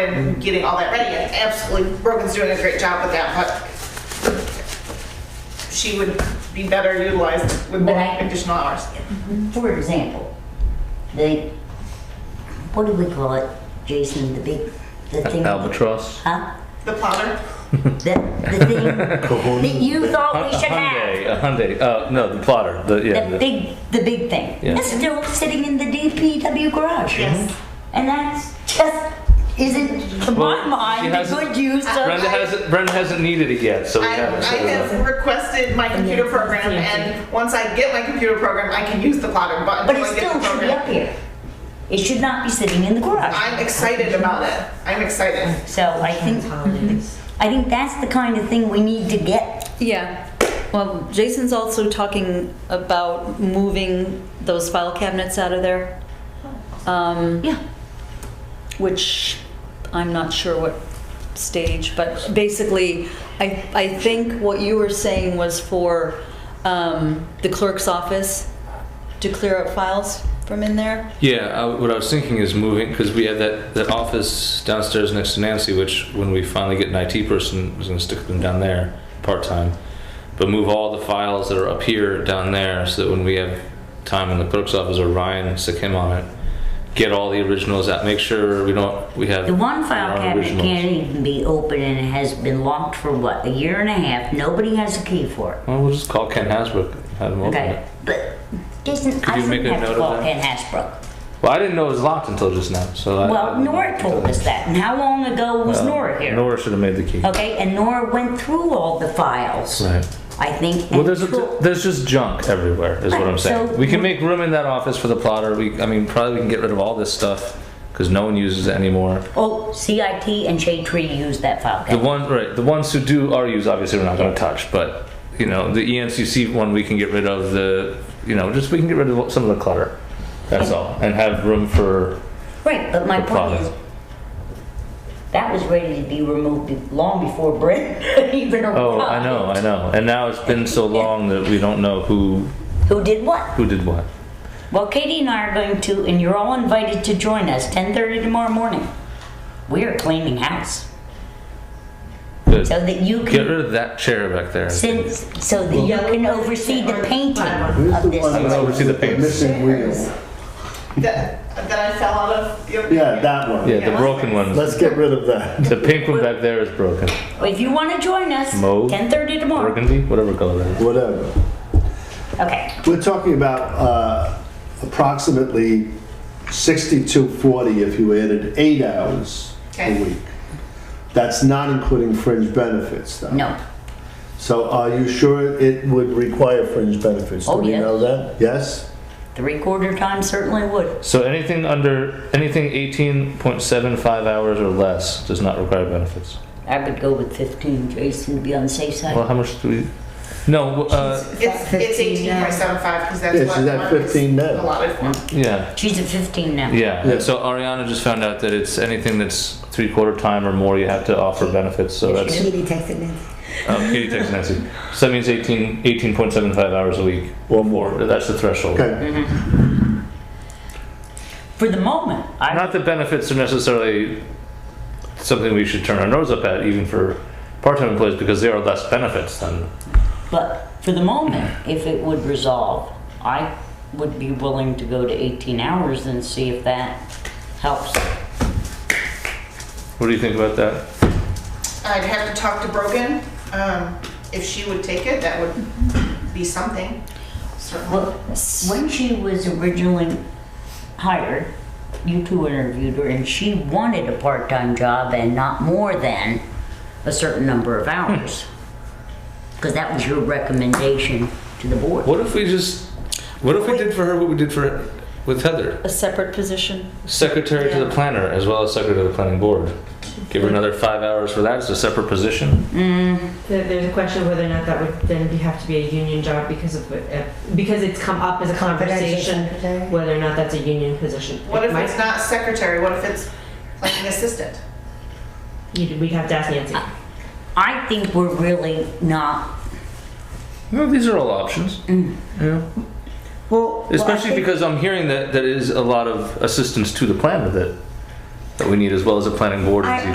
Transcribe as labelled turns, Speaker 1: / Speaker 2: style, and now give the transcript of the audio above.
Speaker 1: and getting all that ready, and absolutely, Brogan's doing a great job with that, but she would be better utilized with more
Speaker 2: But I-
Speaker 1: additional hours.
Speaker 2: For example, the, what do we call it, Jason, the big, the thing?
Speaker 3: Albatross.
Speaker 2: Huh?
Speaker 1: The plotter,
Speaker 2: The, the thing that you thought we
Speaker 3: Hun-
Speaker 2: should have?
Speaker 3: Hyundai, a Hyundai, uh, no, the plotter, the, yeah.
Speaker 2: The
Speaker 3: the-
Speaker 2: big, the big thing.
Speaker 3: Yeah.
Speaker 2: That's still sitting in the DPW garage.
Speaker 1: yes.
Speaker 2: And that's just, isn't, to my
Speaker 3: Well, she
Speaker 2: mind, a
Speaker 3: hasn't-
Speaker 2: good use of.
Speaker 3: Brenda hasn't, Brenda hasn't needed it yet, so we
Speaker 1: I, I
Speaker 3: haven't set it up.
Speaker 1: have requested my computer program, and once I get my computer program, I can use the plotter button.
Speaker 2: But
Speaker 1: to
Speaker 2: it
Speaker 1: get the
Speaker 2: still should be
Speaker 1: program.
Speaker 2: up here. It should not be sitting in the garage.
Speaker 1: I'm excited about it. I'm excited.
Speaker 2: So I think, I think that's the kind of thing we need to get.
Speaker 4: Yeah. Well, Jason's also talking about moving those file cabinets out of there. Um,
Speaker 2: Yeah.
Speaker 4: which I'm not sure what stage, but basically, I, I think what you were saying was for um, the clerk's office to clear up files from in there.
Speaker 3: Yeah, I, what I was thinking is moving, because we had that, that office downstairs next to Nancy, which when we finally get an IT person, was gonna stick them down there, part-time. But move all the files that are up here down there, so that when we have time in the clerk's office, or Ryan, stick him on it, get all the originals out, make sure we don't, we have.
Speaker 2: The one file
Speaker 3: our
Speaker 2: cabinet
Speaker 3: originals.
Speaker 2: can't even be open and it has been locked for what, a year and a half? Nobody has a key for it.
Speaker 3: Well, we'll just call Ken Hasbrook, and have him open
Speaker 2: Okay,
Speaker 3: it.
Speaker 2: but Jason, I
Speaker 3: you make
Speaker 2: shouldn't
Speaker 3: a
Speaker 2: have
Speaker 3: note
Speaker 2: to
Speaker 3: of
Speaker 2: call
Speaker 3: that?
Speaker 2: Ken Hasbrook.
Speaker 3: Well, I didn't know it was locked until just now, so. I-
Speaker 2: Well, Nora told us that, and how long ago was
Speaker 3: Uh,
Speaker 2: Nora here? Oh.
Speaker 3: Nora should have made the key.
Speaker 2: Okay, and Nora went through all the files,
Speaker 3: Right.
Speaker 2: I think.
Speaker 3: Well,
Speaker 2: and
Speaker 3: there's a,
Speaker 2: tro-
Speaker 3: there's just junk everywhere, is what I'm
Speaker 2: Right,
Speaker 3: saying.
Speaker 2: so-
Speaker 3: we can make room in that office for the plotter. We, I mean, probably we can get rid of all this stuff because no one uses it anymore.
Speaker 2: Oh, CIT and Shade Tree used that file
Speaker 3: The
Speaker 2: cabinet.
Speaker 3: one, right? The ones who do are used, obviously, we're not going to touch. But you know, the E ENCC one we can get rid of. The you know, just we can get rid of some of the clutter. That's all, and have room for
Speaker 2: Right, but my
Speaker 3: the
Speaker 2: point
Speaker 3: plotter.
Speaker 2: is, that was ready to be removed be- long before Brent even arrived.
Speaker 3: Oh, I know, I know. And now it's been so long that we don't know who
Speaker 2: Who did what?
Speaker 3: who did what.
Speaker 2: Well, Katie and I are going to, and you're all invited to join us, 10:30 tomorrow morning. We are cleaning house,
Speaker 3: Good.
Speaker 2: so that you
Speaker 3: Get
Speaker 2: can,
Speaker 3: rid of that chair back there.
Speaker 2: since, so that you can oversee the painting
Speaker 5: Who's
Speaker 2: of
Speaker 5: the one
Speaker 2: this.
Speaker 3: I'm gonna
Speaker 5: that's
Speaker 3: oversee the paints.
Speaker 5: Missing wheel.
Speaker 1: That, that I fell out of the other.
Speaker 5: Yeah, that one.
Speaker 3: Yeah, the broken one.
Speaker 5: Let's get rid of that.
Speaker 3: The pink one back there is broken.
Speaker 2: If you want to join us,
Speaker 3: Mauve,
Speaker 2: 10:30 tomorrow.
Speaker 3: Burgundy, whatever color that is.
Speaker 5: Whatever.
Speaker 2: Okay,
Speaker 5: We're talking about uh, approximately 6240 if you added eight hours
Speaker 1: Okay.
Speaker 5: a week. That's not including fringe benefits, though.
Speaker 2: no,
Speaker 5: So are you sure it would require fringe benefits?
Speaker 2: Oh,
Speaker 5: Do we
Speaker 2: yeah.
Speaker 5: know that? Yes?
Speaker 2: three-quarter time certainly would.
Speaker 3: So anything under, anything 18.75 hours or less does not require benefits.
Speaker 2: I would go with 15, Jason, to be on the safe
Speaker 3: Well,
Speaker 2: side.
Speaker 3: how much do we, no, uh,
Speaker 1: It's, it's
Speaker 6: 15
Speaker 1: eighteen
Speaker 6: now.
Speaker 1: point seven five, because that's
Speaker 5: Yeah,
Speaker 1: what.
Speaker 5: she's at
Speaker 1: Mark is
Speaker 5: 15 now.
Speaker 1: Allotted for.
Speaker 3: yeah,
Speaker 2: She's at 15 now.
Speaker 3: yeah. And so Ariana just found out that it's anything that's three quarter time or more, you have to offer benefits, so that's,
Speaker 6: Katie texted me.
Speaker 3: um, Katie texted Nancy. So that means 18, 18.75 hours a week or more, that's the threshold.
Speaker 5: Okay,
Speaker 2: For the moment, I,
Speaker 3: Not that benefits are necessarily something we should turn our nose up at, even for part-time employees, because there are less benefits than
Speaker 2: but for the moment, if it would resolve, I would be willing to go to 18 hours and see if that helps.
Speaker 3: What do you think about that?
Speaker 1: I'd have to talk to Brogan, um, if she would take it, that would be something, certainly.
Speaker 2: Well, when she was originally hired, you two interviewed her, and she wanted a part-time job and not more than a certain number of hours. Because that was your recommendation to the board.
Speaker 3: What if we just, what if we did for her what we did for with Heather,
Speaker 4: A separate position.
Speaker 3: secretary to the planner as well as secretary to the planning board? Give her another five hours for that as a separate position.
Speaker 7: There- There's a question of whether or not that would then be- have to be a union job because of, what- uh, because it's come up as a conversation,
Speaker 6: secretary.
Speaker 7: whether or not that's a union position.
Speaker 1: What if
Speaker 7: It might-
Speaker 1: it's not secretary, what if it's like an assistant?
Speaker 7: you'd- We'd have to ask Nancy.
Speaker 2: I think we're really not,
Speaker 3: No, these are all options. Yeah.
Speaker 6: Mm. Well, well, I
Speaker 3: Especially
Speaker 6: think-
Speaker 3: because I'm hearing that there is a lot of assistance to the planner that that we need as well as a planning board
Speaker 4: I-
Speaker 3: review.